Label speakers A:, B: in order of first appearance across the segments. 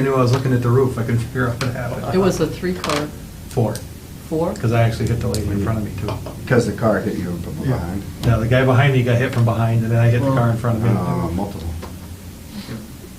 A: I knew I was looking at the roof, I couldn't figure out what happened.
B: It was a three-car,
A: Four,
B: four?
A: because I actually hit the lady in front of me too.
C: Because the car hit you from behind?
A: Now, the guy behind me got hit from behind, and then I hit the car in front of
C: Uh,
A: me.
C: Multiple.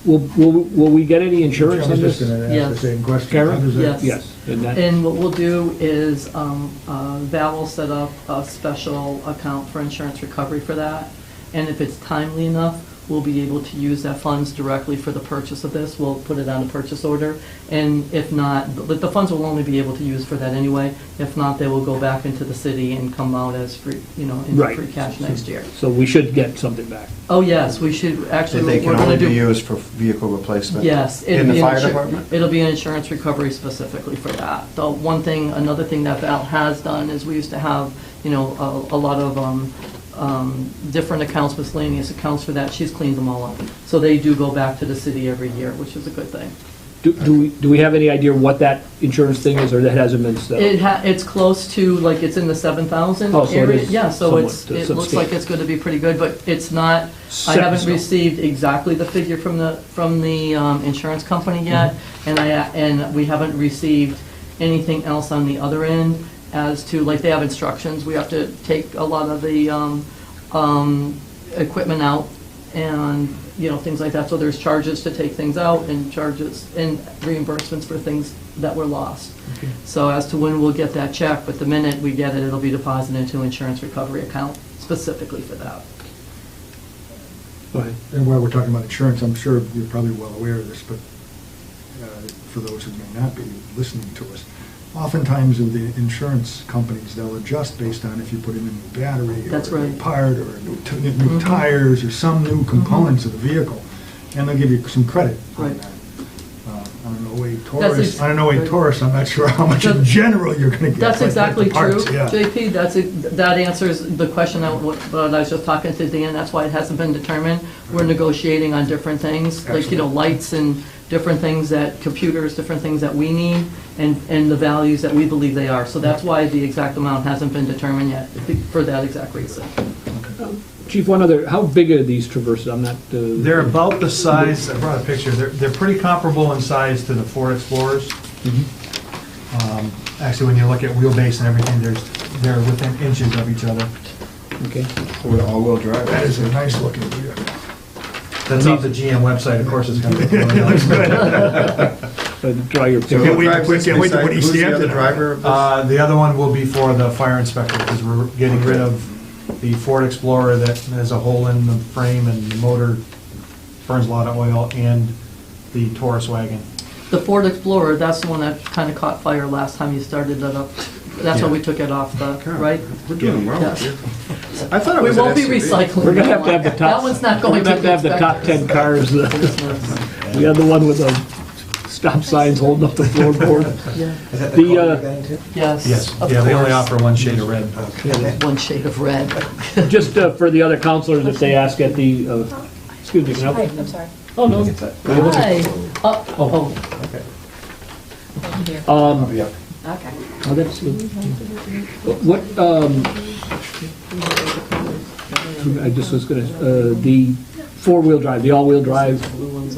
D: Will, will, will we get any insurance on this?
B: Yes.
D: Karen?
B: Yes.
D: Yes. And that-
B: And what we'll do is, um, uh, Val will set up a special account for insurance recovery for that. And if it's timely enough, we'll be able to use that funds directly for the purchase of this. We'll put it on a purchase order. And if not, but the funds will only be able to use for that anyway. If not, they will go back into the city and come out as free, you know, in
D: Right.
B: free cash next year.
D: So we should get something back.
B: Oh, yes, we should, actually,
C: That
B: we're
C: they
B: going to do.
C: can only be used for vehicle replacement?
B: Yes. it'll
C: In the
B: be an
C: fire
B: insur-
C: department?
B: It'll be an insurance recovery specifically for that. The one thing, another thing that Val has done is we used to have, you know, a, a lot of, um, um, different accounts, miscellaneous accounts for that. She's cleaned them all up. So they do go back to the city every year, which is a good thing.
D: Do, do we, do we have any idea what that insurance thing is, or that hasn't been
B: It
D: settled?
B: ha, it's close to, like, it's in the seven thousand
D: Oh, so it
B: area.
D: is
B: Yeah, so
D: somewhat-
B: it's, it
D: some
B: looks
D: scale.
B: like it's gonna be pretty good, but it's not, I
D: Set in
B: haven't
D: stone.
B: received exactly the figure from the, from the, um, insurance
D: Mm-hmm.
B: company yet. And I, and we haven't received anything else on the other end as to, like, they have instructions. We have to take a lot of the, um, um, equipment out and, you know, things like that. So there's charges to take things out and charges and reimbursements for things that were lost. So as to when we'll get that check, but the minute we get it, it'll be deposited into insurance recovery account specifically for that.
D: Go ahead.
E: And while we're talking about insurance, I'm sure you're probably well aware of this, but uh, for those who may not be listening to us, oftentimes in the insurance companies, they'll adjust based on if you put in a new battery.
B: That's
E: Or a
B: right. Mm-hmm.
E: new part, or a new t- new
B: Mhm.
E: tires, or some new components of the vehicle. And they'll give you some credit on
B: Right.
E: that. Uh, On an 08
B: ex-
E: Taurus, on an 08
B: right.
E: Taurus, I'm not sure how much in
B: That's-
E: general you're going to get.
B: That's
E: but- but
B: exactly
E: the
B: true,
E: parts, yeah.
B: JP, that's, it- that answers the question I wa- that I was just talking to Dan, that's why it hasn't been determined. We're negotiating on different things, like, you know,
E: Absolutely.
B: lights and different things that, computers, different things that we need, and, and the values that we believe they are. So that's why the exact amount hasn't been determined yet, for that exact reason.
D: Chief, one other, how big are these traverses? I'm not, uh,
A: They're about the size, I brought a picture, they're, they're pretty comparable in size to the Ford Explorers. Um, Actually, when you look at wheelbase and everything, there's, they're within inches of each other.
D: okay.
C: With all-wheel drive?
E: That is a nice looking vehicle.
A: That's off the GM website, of course, it's gonna be.
D: Uh, Draw your
C: So
E: Can't
C: who
E: wait to-
C: drives this
E: can't wait to
C: beside-
E: put East
C: Who's the other
E: Hampton on.
C: driver of this?
A: Uh, The other one will be for the fire inspector, because we're getting rid of the Ford Explorer that has a hole in the frame and the motor burns a lot of oil, and the Taurus wagon.
B: The Ford Explorer, that's the one that kind of caught fire last time you started that up, that's why we took it off the, right?
C: We're doing well
B: Yes.
C: here. I thought it
B: We
C: was an
B: won't be
C: SUV.
B: recycling.
D: We're gonna have to
B: that
D: have the
B: one.
D: top.
B: That one's not going to
D: We're gonna have to have the top
B: inspectors.
D: ten cars, the, the other one with the stop signs holding up the floorboard.
B: Yeah.
D: The, uh,
B: Yes.
A: Yes,
B: of
A: yeah, they only
B: course.
A: offer one shade of red.
B: One shade of red.
D: Just uh, for the other counselors, if they ask at the, uh, excuse me, can I?
F: Hi, I'm sorry.
D: Oh, no.
B: Hi. Oh, oh,
F: Thank you.
D: Um,
C: Yeah.
F: Okay.
D: Oh, that's good. What, um, I just was gonna, uh, the four-wheel drive, the all-wheel drive,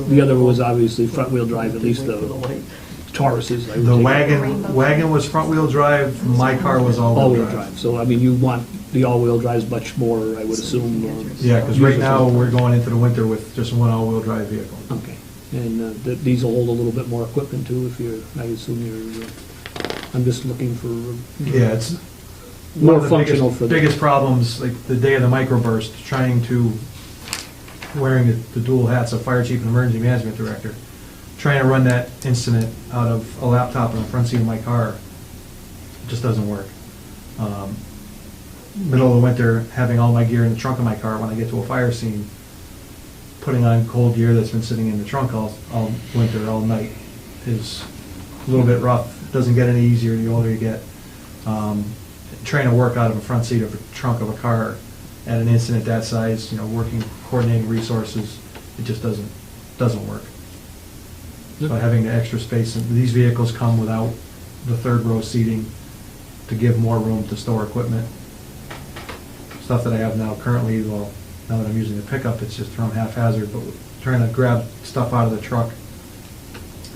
D: the other was obviously front-wheel drive, at least the
B: wait.
D: Tauruses. I would
A: The
D: take.
A: wagon, wagon was front-wheel drive, my car was
D: All-wheel
A: all-wheel drive.
D: drive, so I mean, you want the all-wheel drives much more, I would assume, or,
A: Yeah, because right now, we're going into the winter with just one all-wheel drive vehicle.
D: okay. And uh, th- these will hold a little bit more equipment too, if you're, I assume you're, uh, I'm just looking for uh,
A: Yeah, it's one
D: more
A: of the biggest-
D: functional for the.
A: Biggest problems, like the day of the microburst, trying to, wearing the- the dual hats of fire chief and emergency management director, trying to run that incident out of a laptop in the front seat of my car, it just doesn't work. Um, Middle of the winter, having all my gear in the trunk of my car when I get to a fire scene, putting on cold gear that's been sitting in the trunk all, all winter, all night, is a little bit rough. Doesn't get any easier the older you get. Um, Trying to work out of a front seat of a trunk of a car at an incident that size, you know, working, coordinating resources, it just doesn't, doesn't work.
D: uh,
A: So having the extra space, and these vehicles come without the third row seating to give more room to store equipment. Stuff that I have now currently, well, now that I'm using the pickup, it's just thrown haphazard, but trying to grab stuff out of the truck